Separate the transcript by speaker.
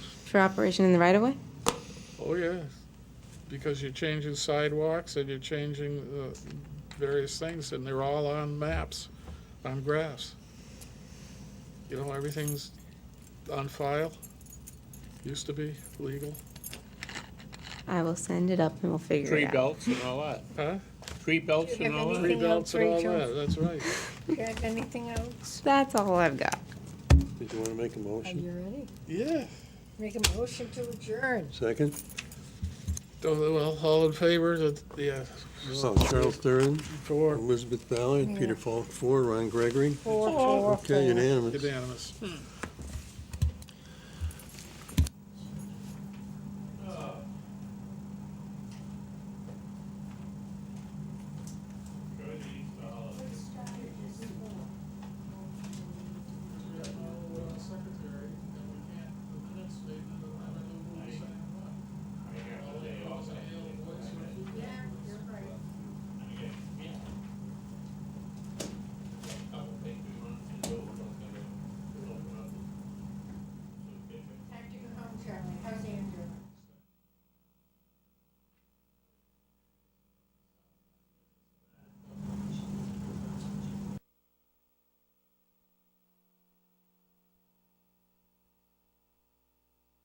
Speaker 1: for operation in the right of way?
Speaker 2: Oh, yeah, because you're changing sidewalks and you're changing uh, various things, and they're all on maps, on graphs. You know, everything's on file, used to be legal,
Speaker 1: I will send it up and we'll figure
Speaker 3: Tree
Speaker 1: it out.
Speaker 3: belts and all that,
Speaker 2: huh?
Speaker 3: tree belts
Speaker 4: Do you
Speaker 3: and
Speaker 4: have
Speaker 3: all
Speaker 2: Tree
Speaker 3: that.
Speaker 4: anything?
Speaker 2: belts and all
Speaker 4: else,
Speaker 2: that,
Speaker 4: Rachel?
Speaker 2: that's right.
Speaker 4: Do you have anything else?
Speaker 1: That's all I've got.
Speaker 5: Did you want to make a
Speaker 4: Are
Speaker 5: motion?
Speaker 4: you ready?
Speaker 2: Yeah,
Speaker 4: Make a motion to adjourn.
Speaker 5: Second?
Speaker 2: Oh, well, all in favor, that- uh, yeah,
Speaker 5: So Charles Thurin,
Speaker 2: for,
Speaker 5: Elizabeth Ballard, Peter Falk, four, Ron Gregory.
Speaker 4: Four, four, four.
Speaker 5: Okay, unanimous.
Speaker 2: unanimous.